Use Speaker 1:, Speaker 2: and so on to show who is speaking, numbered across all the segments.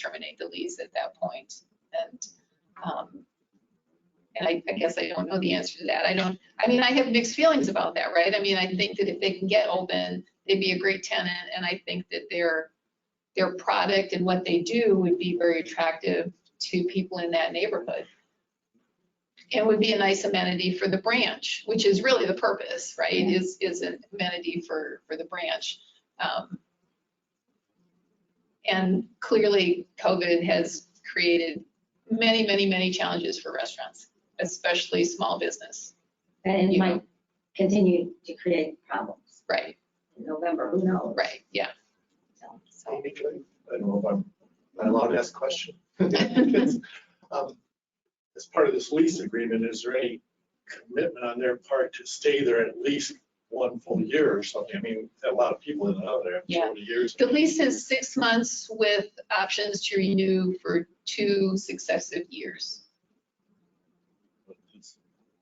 Speaker 1: terminate the lease at that point. And, um, and I, I guess I don't know the answer to that. I don't, I mean, I have mixed feelings about that, right? I mean, I think that if they can get open, they'd be a great tenant, and I think that their, their product and what they do would be very attractive to people in that neighborhood. And would be a nice amenity for the branch, which is really the purpose, right? Is, is an amenity for, for the branch. Um, and clearly, COVID has created many, many, many challenges for restaurants, especially small business.
Speaker 2: And it
Speaker 1: You
Speaker 2: might continue to create problems
Speaker 1: Right,
Speaker 2: in November, who knows?
Speaker 1: right, yeah.
Speaker 2: So,
Speaker 1: So,
Speaker 3: I don't know if I'm not allowed to ask a question. Um, As part of this lease agreement, is there any commitment on their part to stay there at least one full year or something? I mean, a lot of people in and out of there after
Speaker 1: Yeah.
Speaker 3: so many years.
Speaker 1: The lease is six months with options to renew for two successive years.
Speaker 3: It's-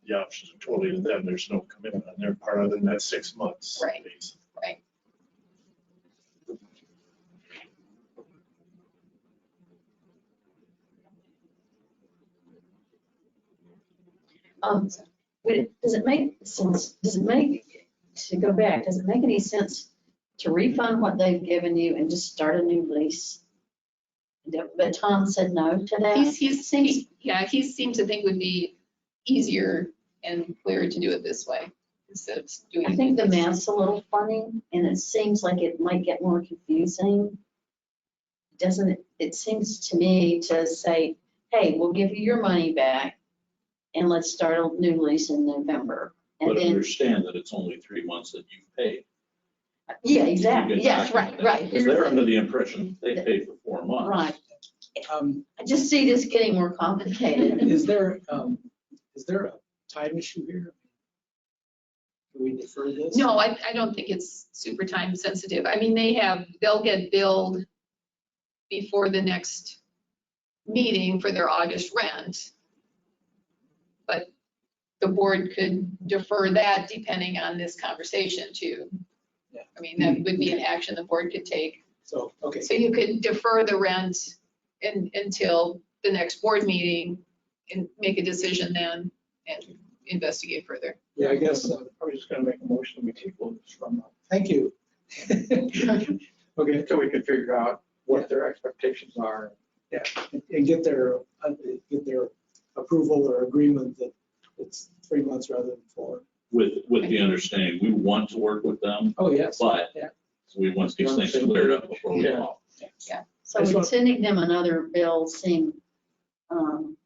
Speaker 3: The options are totally to them. There's no commitment on their part other than that six months.
Speaker 1: Right.
Speaker 3: lease.
Speaker 2: Um, would it, does it make sense, does it make, to go back, does it make any sense to refund what they've given you and just start a new lease? But Tom said no to that.
Speaker 1: He's, he's, he- yeah, he seemed to think would be easier and clearer to do it this way instead of doing.
Speaker 2: I
Speaker 1: it
Speaker 2: think the
Speaker 1: this-
Speaker 2: math's a little funny and it seems like it might get more confusing. Doesn't, it It seems to me to say, hey, we'll give you your money back and let's start a new lease in November. And
Speaker 4: But
Speaker 2: then,
Speaker 4: understand that it's only three months that you've paid.
Speaker 2: yeah, exactly, yes, right, right.
Speaker 4: Because they're under the impression they paid for four months.
Speaker 2: Right.
Speaker 5: Um,
Speaker 2: I just see this getting more complicated.
Speaker 5: Is there, um, is there a time issue here? Do we defer this?
Speaker 1: No, I, I don't think it's super time sensitive. I mean, they have, they'll get billed before the next meeting for their August rent. But the board could defer that depending on this conversation too.
Speaker 5: Yeah.
Speaker 1: I mean, that would be an action the board could take.
Speaker 5: So, okay,
Speaker 1: So you could defer the rent in, until the next board meeting and make a decision then and investigate further.
Speaker 5: yeah, I guess, uh,
Speaker 6: I was just gonna make a motion, we table this from,
Speaker 5: thank you. Okay,
Speaker 6: until we can figure out what their expectations are.
Speaker 5: and get their, uh, get their approval or agreement that it's three months rather than four.
Speaker 4: With, with the understanding, we want to work with them,
Speaker 5: Oh, yes.
Speaker 4: but
Speaker 5: Yeah.
Speaker 4: we want these things cleared up before we
Speaker 6: Yeah.
Speaker 4: go.
Speaker 2: So would sending them another bill seem, um,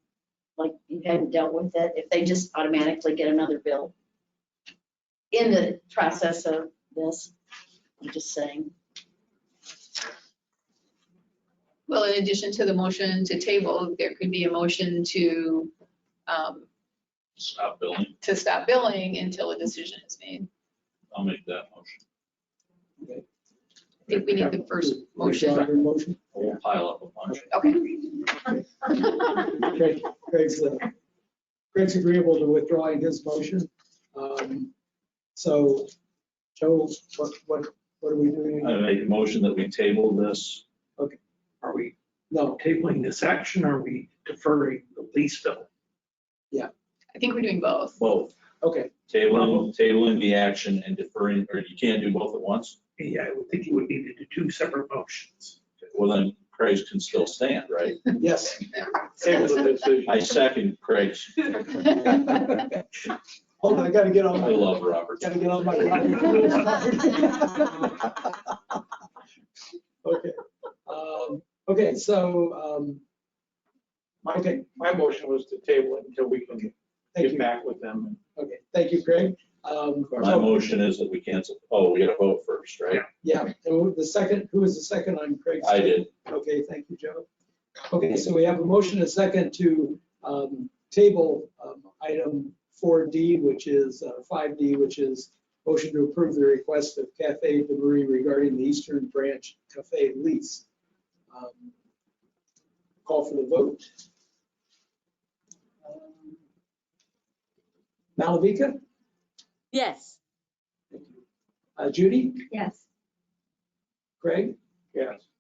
Speaker 2: like you hadn't dealt with it, if they just automatically get another bill? In the process of this, I'm just saying,
Speaker 1: Well, in addition to the motion to table, there could be a motion to, um,
Speaker 4: Stop billing.
Speaker 1: to stop billing until a decision is made.
Speaker 4: I'll make that motion.
Speaker 1: I think we need the first
Speaker 5: Do I
Speaker 1: motion.
Speaker 5: have a Motion.
Speaker 4: We'll pile up a bunch.
Speaker 1: Okay.
Speaker 5: Greg- Greg's, uh, Greg's agreeable to withdrawing his motion. Um, So, Joe, what, what, what are we doing?
Speaker 4: I make a motion that we table this.
Speaker 6: Are we
Speaker 5: No,
Speaker 6: tabling this action, or are we deferring the lease bill?
Speaker 1: I think we're doing both.
Speaker 4: Both,
Speaker 5: okay.
Speaker 4: tabling, tabling the action and deferring, or you can't do both at once.
Speaker 6: Yeah, I would think you would need to do two separate motions.
Speaker 4: Well, then Craig's can still stand, right?
Speaker 5: Yes.
Speaker 6: Table the decision.
Speaker 4: I second Craig's.
Speaker 5: Hold on, I gotta get
Speaker 4: I
Speaker 5: on my,
Speaker 4: love Robert.
Speaker 5: gotta get on my. Okay. Um, Okay, so, um,
Speaker 6: My,
Speaker 5: okay,
Speaker 6: my motion was to table it until we can
Speaker 5: thank
Speaker 6: get
Speaker 5: you.
Speaker 6: back with them.
Speaker 5: Okay, thank you, Greg. Um,
Speaker 4: My motion is that we cancel, oh, we gotta vote first, right?
Speaker 5: Yeah, and the second, who was the second on Craig's?
Speaker 4: I did.
Speaker 5: Okay, thank you, Joe. Okay, so we have a motion, and a second to um, table um, item 4D, which is, uh, 5D, which is motion to approve the request of Cafe de Marie regarding the Eastern Branch Cafe lease. Um, Call for the vote. Malavika?
Speaker 7: Yes.
Speaker 5: Uh, Judy?
Speaker 2: yes.
Speaker 5: Craig?
Speaker 6: Yes.